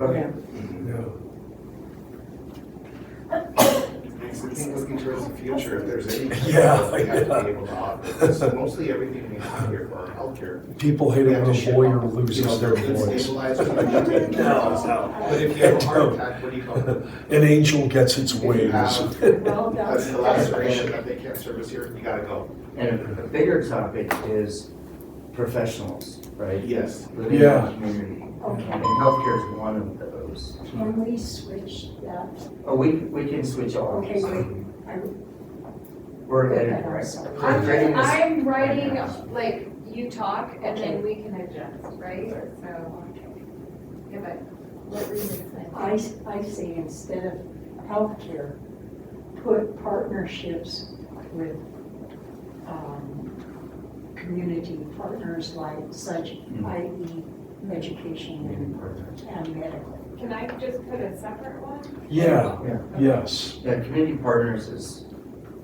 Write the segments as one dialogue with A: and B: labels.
A: Okay.
B: Because We can look into the future if there's any.
C: Yeah,
B: We have to
C: yeah.
B: be able to offer. So mostly everything we have here for our healthcare.
C: People hate
B: we
C: it
B: have to
C: when a
B: ship
C: lawyer
B: off.
C: loses
B: Because
C: their
B: it's
C: voice.
B: stabilized, we can take care of us out. But if you have a heart attack, what do you call it?
C: An angel gets its
B: If you
C: wings.
B: have-
D: Well,
B: That's the
D: that's,
B: laceration that they can't service here, you gotta go.
A: And a bigger topic is professionals, right?
B: Yes.
A: Living in the
C: Yeah.
A: community.
D: okay,
A: And healthcare is one of those.
D: can we switch that?
A: Oh, we, we can switch all
D: Okay,
A: these.
D: great.
A: We're editing right now. We're creating
E: I'm,
A: this-
E: I'm
A: right
E: writing,
A: now.
E: like, you talk, and
D: Okay.
E: then we can adjust, right? So, yeah, but what were you
D: I,
E: saying?
D: s- I say instead of healthcare, put partnerships with, um, community partners like such,
A: Mm, Hmm.
D: i.e. education and, and medical.
F: Can I just put a separate one?
C: Yeah,
A: Yeah.
C: yes.
A: Yeah, community partners is,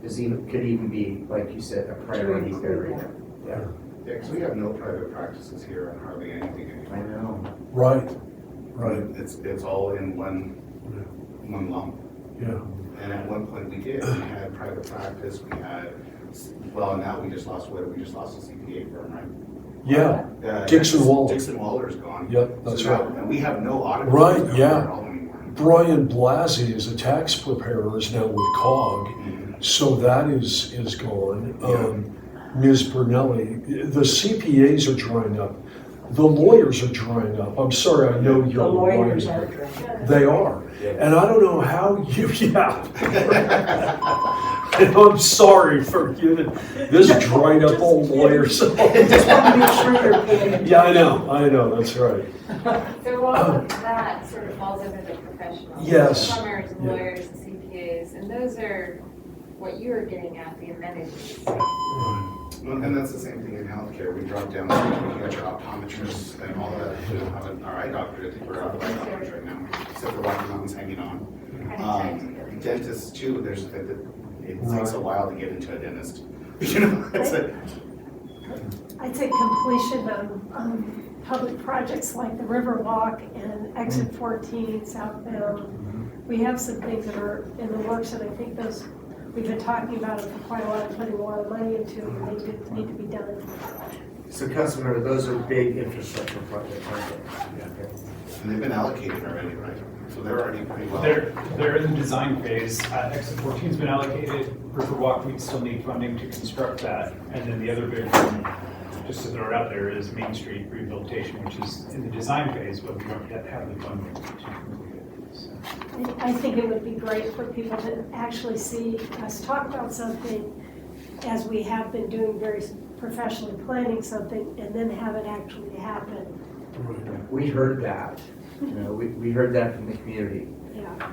A: is even, could even be, like you said, a priority
D: include
A: area.
B: Yeah, because we have no private practices here and hardly anything
A: I
B: anymore.
A: know.
C: Right, right,
B: It's, it's all in one, one lump.
C: yeah.
B: And at one point we did, we had private practice, we had, well, now we just lost, what, we just lost a CPA firm, right?
C: Yeah,
B: Uh,
C: Dixon Waller.
B: Dixon Waller's gone.
C: yep, that's
B: So now-
C: right.
B: And we have no audit.
C: Right,
B: firms down
C: yeah.
B: there at all anymore.
C: Brian Blasey is a tax preparer, is now with COG,
B: Mhm.
C: so that is, is gone. Um, Ms. Brunelli, the CPAs are drying up. The lawyers are drying up. I'm sorry, I know
D: The
C: you're
D: lawyers are great.
C: They are.
B: Yeah.
C: And I don't know how you, yeah. And I'm sorry for giving this dried up old lawyer some.
D: Just want to make sure you're paying attention.
C: Yeah, I know, I know, that's right.
F: So all of that sort of falls under the professionals.
C: Yes.
F: Plumbers,
C: Yeah.
F: lawyers, CPAs, and those are what you were getting at, the amenities.
B: Well, And that's the same thing in healthcare, we drop down, we got your optometrists and all that, we don't have an RI doctor, I think we're out of eye doctors right now, except for Rocky Mountain's hanging on. Um, Dentists too, there's, it takes a while to get into a dentist, you know, it's a,
G: I'd say completion of um, public projects like the Riverwalk and Exit 14 southbound. We have some things that are in the works, and I think those, we've been talking about it for quite a while, and putting a lot of money into, and they do need to be done.
A: So Council Member, those are big infrastructure projects, aren't they? Okay.
B: and they've been allocated already, right? So they're already pretty well.
H: They're, they're in the design phase. Uh, Exit 14's been allocated. Riverwalk, we still need funding to construct that. And then the other big one, just to throw it out there, is Main Street rehabilitation, which is in the design phase, but we don't yet have the funding to complete it. So-
G: I I think it would be great for people to actually see us talk about something as we have been doing very professionally planning something, and then have it actually happen,
A: We heard that, you know, we, we heard that from the community.
G: yeah.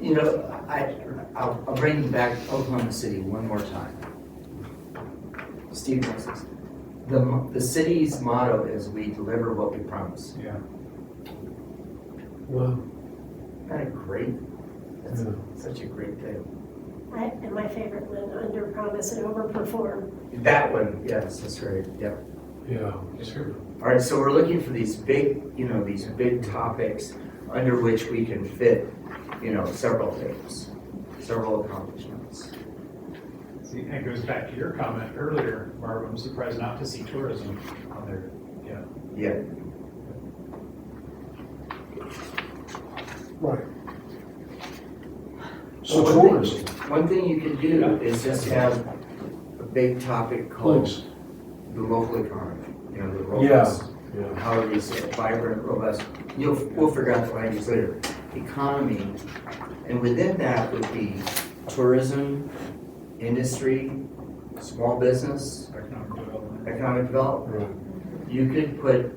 A: You know, I, I'll, I'll bring you back to Oklahoma City one more time. Steve Moses, the, mo- the city's motto is we deliver what we promise.
H: Yeah.
C: Wow.
A: Isn't that a great, that's
C: Yeah.
A: such a great thing.
G: I- And my favorite one, under promise and overperform.
A: That one, yes, that's right, yep.
C: Yeah, sure.
A: All right, so we're looking for these big, you know, these big topics under which we can fit, you know, several things, several accomplishments.
H: See, and it goes back to your comment earlier, Barb, I'm surprised not to see tourism on there.
A: Yeah,
C: Right. So
A: Well, one
C: tourism,
A: one thing you can do is just have a big topic called
C: please.
A: the local economy, you know, the
C: Yeah.
A: robust, how do we say it, vibrant, robust, you'll, we'll figure out the language later. Economy, and within that would be tourism, industry, small business,
H: Economic development.
A: economic development. You could put,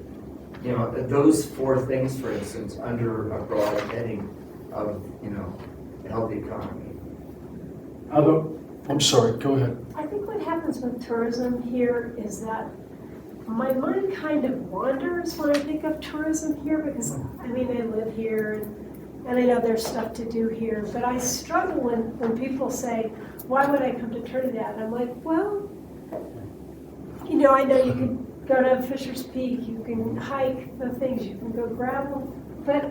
A: you know, those four things, for instance, under a broad heading of, you know, a healthy economy.
C: How about, I'm sorry, go ahead.
G: I think what happens with tourism here is that my mind kind of wanders when I think of tourism here because, I mean, I live here and, and I know there's stuff to do here, but I struggle when, when people say, why would I come to Trinidad? And I'm like, well, you know, I know you can go to Fisher's Peak, you can hike the things, you can go gravel, but